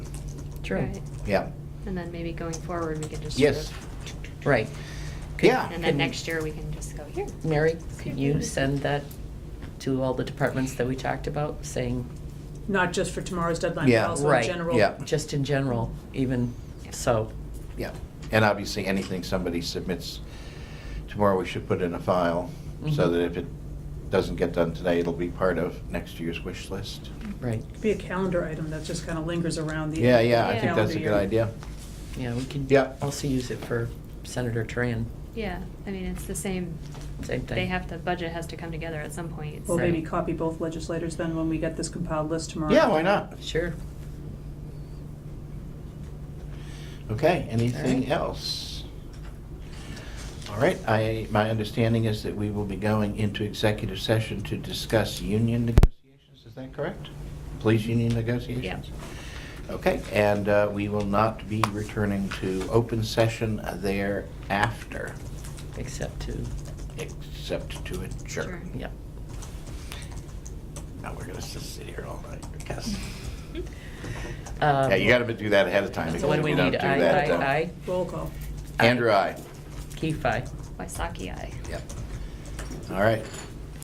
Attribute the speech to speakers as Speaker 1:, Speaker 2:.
Speaker 1: True,
Speaker 2: Right.
Speaker 3: yeah,
Speaker 2: And then maybe going forward, we can just sort
Speaker 3: Yes.
Speaker 2: of.
Speaker 1: right. Could-
Speaker 3: Yeah.
Speaker 2: And then
Speaker 1: could-
Speaker 2: next year, we can just go here.
Speaker 1: Mary, could you send that to all the departments that we talked about, saying,
Speaker 4: Not just for tomorrow's deadline,
Speaker 3: Yeah,
Speaker 4: but also in
Speaker 1: right,
Speaker 4: general.
Speaker 3: yeah.
Speaker 1: just in general, even
Speaker 2: Yeah.
Speaker 1: so?
Speaker 3: yeah. And obviously, anything somebody submits tomorrow, we should put in a file, so
Speaker 4: Mm-hmm.
Speaker 1: Mhm.
Speaker 3: that if it doesn't get done today, it'll be part of next year's wish list.
Speaker 1: Right,
Speaker 4: Could Be a calendar item that just kind of lingers around the.
Speaker 3: Yeah, yeah, I think
Speaker 4: calendar
Speaker 3: that's a good
Speaker 4: year.
Speaker 3: idea.
Speaker 1: yeah, we can
Speaker 3: Yeah.
Speaker 1: also use it for Senator Tran,
Speaker 2: Yeah, I mean, it's the same,
Speaker 1: same thing.
Speaker 2: they have to, budget has to come together at some point.
Speaker 4: We'll
Speaker 2: so-
Speaker 4: maybe copy both legislators then when we get this compiled list tomorrow.
Speaker 3: Yeah, why not?
Speaker 1: Sure.
Speaker 3: Okay, anything
Speaker 1: All right.
Speaker 3: else? All right, I, my understanding is that we will be going into executive session to discuss union negotiations, is that correct? Police union negotiations? Okay, and uh, we will not be returning to open session thereafter,
Speaker 1: Except to,
Speaker 3: except to
Speaker 2: Sure.
Speaker 3: adjourn.
Speaker 1: yeah.
Speaker 3: Now, we're gonna just sit here all night, because,
Speaker 2: Hmm?
Speaker 1: Um,
Speaker 3: yeah, you gotta do that ahead of time, because
Speaker 4: So what
Speaker 3: if
Speaker 1: When
Speaker 4: do
Speaker 1: we
Speaker 3: we don't
Speaker 1: need
Speaker 3: do
Speaker 1: aye, aye,
Speaker 3: that, uh,
Speaker 1: aye,
Speaker 4: Roll call.
Speaker 1: aye.
Speaker 3: Andrew, aye.
Speaker 1: Um, Keefe, aye.
Speaker 2: Waisaki, aye.
Speaker 3: Yep. All right,